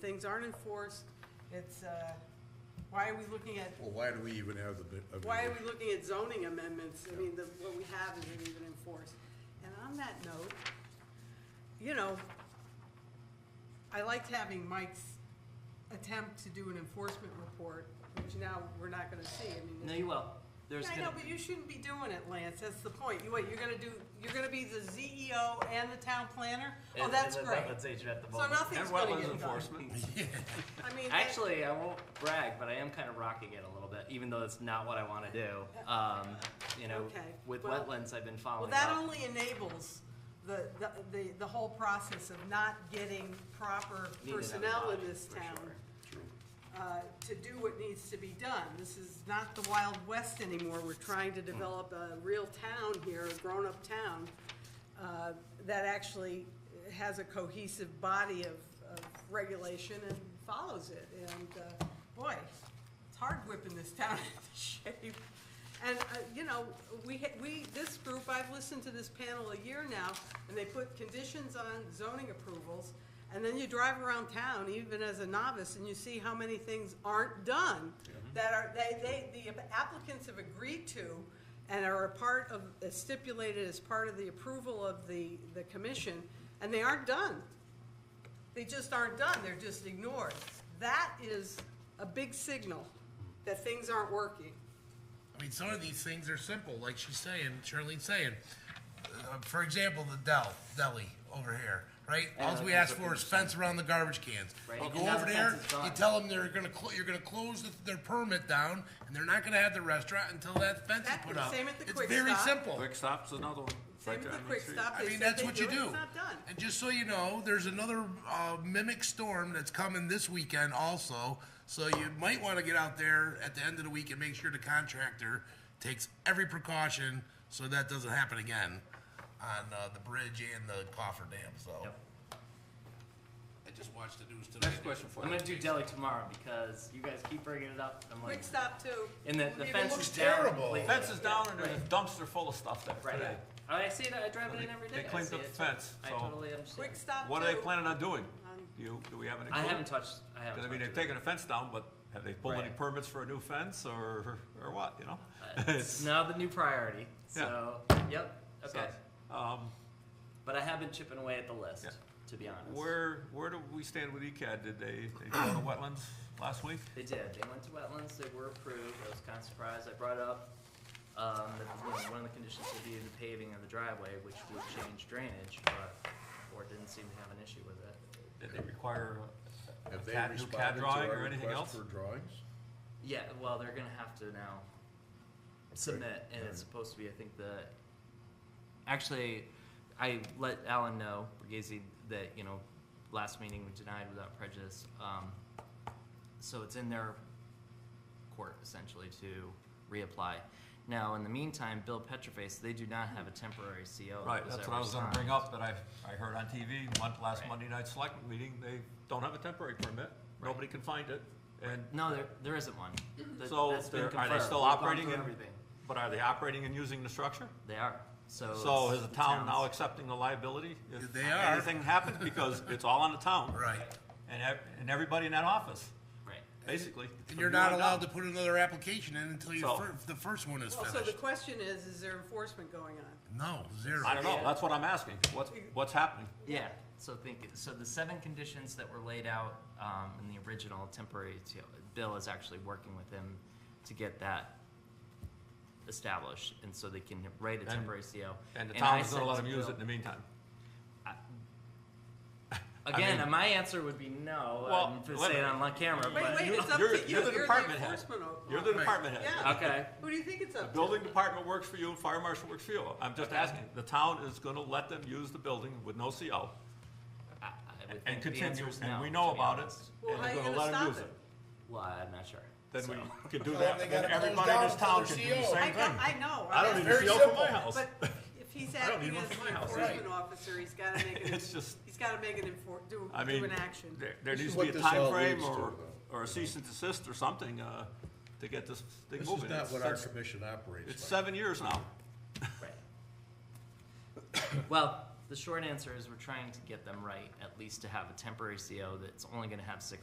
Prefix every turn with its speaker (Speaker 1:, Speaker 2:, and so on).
Speaker 1: things aren't enforced, it's, uh, why are we looking at,
Speaker 2: Well, why do we even have the? bi- a
Speaker 1: why are
Speaker 2: video?
Speaker 1: we looking at zoning amendments? I mean, the, what we have isn't even enforced. And on that note, you know, I liked having Mike's attempt to do an enforcement report, which now we're not gonna see, I mean.
Speaker 3: No, you will. There's
Speaker 1: I
Speaker 3: gonna
Speaker 1: know, but you shouldn't be doing it, Lance, that's the point. You, what, you're gonna do, you're gonna be the ZEO and the town planner? Oh,
Speaker 3: and-
Speaker 1: that's
Speaker 3: and the
Speaker 1: great.
Speaker 3: wetlands agent at the
Speaker 1: So
Speaker 3: moment.
Speaker 1: nothing's
Speaker 4: And
Speaker 1: gonna get
Speaker 4: wetlands
Speaker 1: done.
Speaker 4: enforcement.
Speaker 1: I mean, that-
Speaker 3: Actually, I won't brag, but I am kind of rocking it a little bit, even though that's not what I want to do. Um, you know,
Speaker 1: Okay,
Speaker 3: with
Speaker 1: well-
Speaker 3: wetlands, I've been
Speaker 1: well,
Speaker 3: following
Speaker 1: that
Speaker 3: up.
Speaker 1: only enables the, the, the, the whole process of not getting proper
Speaker 3: Need another
Speaker 1: personnel in
Speaker 3: body,
Speaker 1: this
Speaker 3: for
Speaker 1: town,
Speaker 3: sure.
Speaker 1: uh, to do what needs to be done. This is not the Wild West anymore. We're trying to develop a real town here, a grown-up town, uh, that actually has a cohesive body of, of regulation and follows it. And, uh, boy, it's hard whipping this town into shape. And, uh, you know, we, ha- we, this group, I've listened to this panel a year now, and they put conditions on zoning approvals. And then you drive around town, even as a novice, and you see how many things aren't done that are, they, they, the applicants have agreed to and are a part of, is stipulated as part of the approval of the, the commission, and they aren't done. They just aren't done, they're just ignored. That is a big signal that things aren't working.
Speaker 5: I mean, some of these things are simple, like she's saying, Charlene's saying. Uh, for example, the Dell deli over here, right? All we ask for is fence around the garbage cans.
Speaker 3: Right,
Speaker 5: You
Speaker 3: and
Speaker 5: go
Speaker 3: now
Speaker 5: over
Speaker 3: the
Speaker 5: there,
Speaker 3: fence is gone.
Speaker 5: you tell them they're gonna clo- you're gonna close the, their permit down, and they're not gonna have the restaurant until that fence is
Speaker 1: That-
Speaker 5: put up.
Speaker 1: same at the
Speaker 5: it's
Speaker 1: Quick
Speaker 5: very
Speaker 1: Stop.
Speaker 5: simple.
Speaker 4: Quick stop's another one.
Speaker 1: Same
Speaker 4: Right
Speaker 1: with the
Speaker 4: down
Speaker 1: quick
Speaker 4: street.
Speaker 1: stop,
Speaker 5: I
Speaker 1: they
Speaker 5: mean,
Speaker 1: said
Speaker 5: that's
Speaker 1: they
Speaker 5: what you
Speaker 1: do it,
Speaker 5: do.
Speaker 1: it's not done.
Speaker 5: And just so you know, there's another uh, mimic storm that's coming this weekend also. So you might want to get out there at the end of the week and make sure the contractor takes every precaution so that doesn't happen again on uh, the bridge and the coffer dam. So
Speaker 3: Yep.
Speaker 5: I just watched the news today.
Speaker 4: Next question for
Speaker 3: I'm
Speaker 4: you.
Speaker 3: gonna do deli tomorrow because you guys keep bringing it up. I'm like,
Speaker 1: Quick stop too.
Speaker 3: and the, the
Speaker 1: It
Speaker 3: fence
Speaker 5: looks
Speaker 3: is down
Speaker 5: terrible.
Speaker 3: completely.
Speaker 4: Fence is down and there's a dumpster full of stuff there
Speaker 3: Right. Oh,
Speaker 4: today.
Speaker 3: I see that. I drive it
Speaker 4: They-
Speaker 3: in every day.
Speaker 4: they
Speaker 3: I
Speaker 4: cleaned
Speaker 3: see
Speaker 4: up
Speaker 3: it.
Speaker 4: the fence,
Speaker 3: I
Speaker 4: so-
Speaker 3: totally understand.
Speaker 1: Quick stop too.
Speaker 4: What are they planning on doing?
Speaker 1: Um,
Speaker 4: Do you, do we have any?
Speaker 3: I
Speaker 4: clue?
Speaker 3: haven't touched. I haven't.
Speaker 4: Cause I mean, they're
Speaker 3: touched
Speaker 4: taking a fence down, but have they pulled any
Speaker 3: Right.
Speaker 4: permits for a new fence or, or what, you know?
Speaker 3: it. Uh, It's now the new priority. So, yep.
Speaker 4: So,
Speaker 3: Okay.
Speaker 4: Um,
Speaker 3: But I have been chipping away at the list,
Speaker 4: Yeah.
Speaker 3: to be honest.
Speaker 4: where, where do we stand with E ECAD? Did they, they go to wetlands last week?
Speaker 3: They did. They went to wetlands. They were approved. I was kind of surprised. I brought up um, that you know, one of the conditions would be the paving of the driveway, which would change drainage, but or didn't seem to have an issue with it.
Speaker 4: Did they require a- a
Speaker 2: Have they
Speaker 4: CAD, new
Speaker 2: responded
Speaker 4: CAD
Speaker 2: to
Speaker 4: drawing
Speaker 2: our
Speaker 4: or anything else?
Speaker 2: request for drawings?
Speaker 3: Yeah. Well, they're gonna have to now submit, and it's supposed to be, I think, the. Actually, I let Alan know Borghese that you know, last meeting we denied without prejudice. Um, so it's in their court essentially to reapply. Now, in the meantime, Bill Petroface, they do not have a temporary CO. that
Speaker 4: Right, that's what I
Speaker 3: ever
Speaker 4: was gonna
Speaker 3: signed.
Speaker 4: bring up, that I, I heard on TV, mon- last
Speaker 3: Right.
Speaker 4: Monday night select meeting, they don't have a temporary permit, nobody can find it, and,
Speaker 3: No, there, there isn't one. That-
Speaker 4: So
Speaker 3: that's been
Speaker 4: they're- are they
Speaker 3: confirmed.
Speaker 4: still
Speaker 3: We've gone
Speaker 4: operating
Speaker 3: through
Speaker 4: in-
Speaker 3: Everything.
Speaker 4: but are they operating and using the structure?
Speaker 3: They are, so.
Speaker 4: So
Speaker 3: it's
Speaker 4: is the town now
Speaker 3: town's-
Speaker 4: accepting the liability? if
Speaker 5: They are.
Speaker 4: Anything happens, because it's all on the town.
Speaker 5: Right.
Speaker 4: And, ev- and everybody in that office,
Speaker 3: Right.
Speaker 4: basically.
Speaker 5: And
Speaker 4: from
Speaker 5: you're
Speaker 4: here
Speaker 5: not
Speaker 4: on
Speaker 5: allowed to
Speaker 4: down.
Speaker 5: put another application in until your
Speaker 4: So-
Speaker 5: fir- the first one is
Speaker 1: Well, so the
Speaker 5: finished.
Speaker 1: question is, is there enforcement going on?
Speaker 5: No, zero.
Speaker 4: I don't know,
Speaker 3: Yeah.
Speaker 4: that's what I'm asking, what's, what's happening?
Speaker 3: Yeah, so think, so the seven conditions that were laid out um, in the original temporary TO bill is actually working with them to get that established, and so they can write a
Speaker 4: And-
Speaker 3: temporary CO.
Speaker 4: And the
Speaker 3: I
Speaker 4: town is gonna
Speaker 3: said
Speaker 4: let
Speaker 3: to
Speaker 4: them use
Speaker 3: Bill-
Speaker 4: it in the meantime.
Speaker 3: Again,
Speaker 4: mean-
Speaker 3: my answer would be no. um,
Speaker 4: Well,
Speaker 3: I'm just
Speaker 4: wait a
Speaker 3: saying
Speaker 4: minute.
Speaker 3: on li- camera,
Speaker 1: Wait,
Speaker 3: but
Speaker 1: wait, it's up to you,
Speaker 4: You're- you're
Speaker 1: you're
Speaker 4: the
Speaker 1: the
Speaker 4: department head.
Speaker 1: enforcement. o-
Speaker 4: You're the
Speaker 1: officer.
Speaker 4: department head.
Speaker 1: Yeah.
Speaker 3: okay.
Speaker 1: Who do you think it's
Speaker 4: The
Speaker 1: up to?
Speaker 4: building department works for you, fire marshal works for you. I'm just asking, the town is gonna let them use the building with no CO
Speaker 3: I, I would
Speaker 4: and
Speaker 3: think the
Speaker 4: continue,
Speaker 3: answer is
Speaker 4: and
Speaker 3: no,
Speaker 4: we
Speaker 3: to
Speaker 4: know
Speaker 3: be
Speaker 4: about it,
Speaker 3: honest.
Speaker 1: Well,
Speaker 4: and
Speaker 1: how
Speaker 4: they're
Speaker 1: you
Speaker 4: gonna
Speaker 1: gonna
Speaker 4: let them
Speaker 1: stop
Speaker 4: use it.
Speaker 1: it?
Speaker 3: Well, I'm not sure.
Speaker 4: Then
Speaker 3: so.
Speaker 4: we can do
Speaker 5: Well,
Speaker 4: that,
Speaker 5: they
Speaker 4: then
Speaker 5: gotta
Speaker 4: everybody in
Speaker 5: close
Speaker 4: this
Speaker 5: down
Speaker 4: town
Speaker 5: for
Speaker 4: can do
Speaker 5: CO.
Speaker 4: the
Speaker 1: I,
Speaker 4: same
Speaker 1: got-
Speaker 4: thing.
Speaker 1: I know.
Speaker 4: I don't
Speaker 1: I'm
Speaker 4: need
Speaker 1: asking-
Speaker 5: very
Speaker 4: a CO for
Speaker 5: simple.
Speaker 4: my house.
Speaker 1: But if he's
Speaker 4: I don't
Speaker 1: acting
Speaker 4: need one
Speaker 1: as
Speaker 4: for
Speaker 1: an
Speaker 4: my house.
Speaker 1: enforcement officer, he's gotta make an,
Speaker 4: It's just,
Speaker 1: he's gotta make an enfor, do,
Speaker 4: I
Speaker 1: do
Speaker 4: mean,
Speaker 1: an action.
Speaker 4: there, there
Speaker 2: This
Speaker 4: needs
Speaker 2: is
Speaker 4: to be
Speaker 2: what
Speaker 4: a
Speaker 2: this all
Speaker 4: timeframe
Speaker 2: leads to,
Speaker 4: or,
Speaker 2: though.
Speaker 4: or a cease and desist or something, uh, to get this thing
Speaker 2: This
Speaker 4: moving.
Speaker 2: is not
Speaker 4: It's-
Speaker 2: what our
Speaker 4: it's-
Speaker 2: commission operates
Speaker 4: It's
Speaker 2: like.
Speaker 4: seven years now.
Speaker 3: Right. well, the short answer is we're trying to get them right, at least to have a temporary CO that's only going to have six